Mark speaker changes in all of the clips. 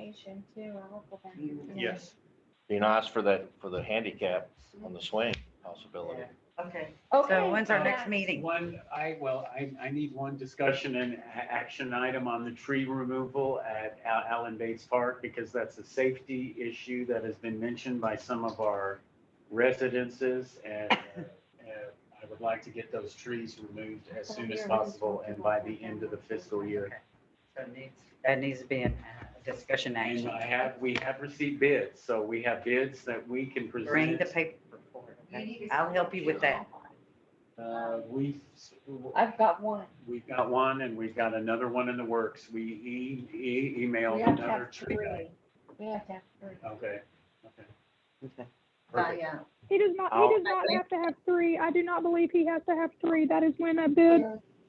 Speaker 1: information too. I'll go back.
Speaker 2: Mm, Yes.
Speaker 3: You know, ask for that, for the handicap on the swing possibility.
Speaker 4: Okay,
Speaker 1: Okay.
Speaker 4: so when's our next
Speaker 1: yeah.
Speaker 4: meeting?
Speaker 2: One, I, well, I, I need one discussion and a- action item on the tree removal at Al- Allen Bates Park because that's a safety issue that has been mentioned by some of our residences and uh, I would like to get those trees removed as soon as possible and by the end of the fiscal year.
Speaker 4: So it needs- That needs to be in uh, discussion
Speaker 2: And
Speaker 4: action.
Speaker 2: I have, we have received bids, so we have bids that we can
Speaker 4: Bring
Speaker 2: present.
Speaker 4: the paper forward.
Speaker 5: You need
Speaker 4: okay?
Speaker 5: to-
Speaker 4: I'll help you with that.
Speaker 2: Uh, We've,
Speaker 1: I've got one.
Speaker 2: we've got one and we've got another one in the works. We e- e-
Speaker 1: We
Speaker 2: emailed
Speaker 1: have to
Speaker 2: another
Speaker 1: have
Speaker 2: tree
Speaker 1: three.
Speaker 2: guy.
Speaker 1: We have to have three.
Speaker 2: Okay, okay.
Speaker 4: Okay.
Speaker 2: Perfect.
Speaker 5: uh,
Speaker 6: He does not,
Speaker 2: I'll-
Speaker 6: he does not have to have three. I do not believe he has to have three. That is when a bid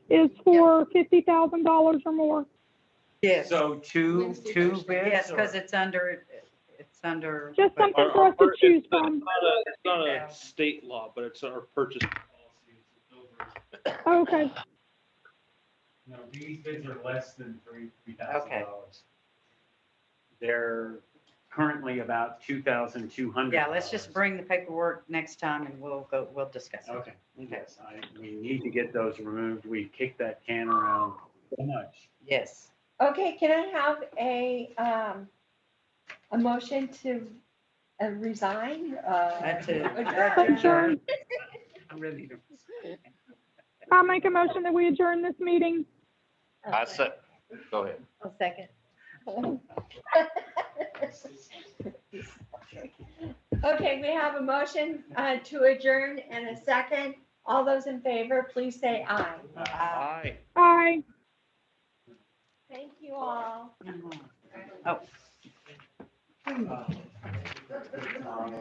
Speaker 6: is for fifty thousand dollars or more.
Speaker 4: Yes,
Speaker 2: So two,
Speaker 5: Wednesday,
Speaker 2: two bids?
Speaker 5: Thursday.
Speaker 4: yes,
Speaker 2: or-
Speaker 4: because it's under, it's under.
Speaker 6: Just
Speaker 4: but-
Speaker 6: something for us to choose from.
Speaker 7: It's not a, it's not a state law, but it's our purchase.
Speaker 6: Okay,
Speaker 2: No, these bids are less than three, three thousand
Speaker 4: Okay.
Speaker 2: dollars. They're currently about two thousand two hundred.
Speaker 4: Yeah, let's just bring the paperwork next time and we'll go, we'll discuss it.
Speaker 2: Okay, yes, I, we need to get those removed. We kicked that can around so much.
Speaker 4: Yes,
Speaker 1: Okay, can I have a, um, a motion to uh, resign? uh,
Speaker 4: that too.
Speaker 1: adjourn?
Speaker 6: Adjourn.
Speaker 4: I'm ready to-
Speaker 6: I'll make a motion that we adjourn this meeting.
Speaker 3: I said, go ahead.
Speaker 1: A second. Okay, we have a motion uh, to adjourn and a second. All those in favor, please say aye.
Speaker 3: Aye.
Speaker 6: Aye.
Speaker 1: Thank you all.
Speaker 4: Oh.
Speaker 2: Uh, um,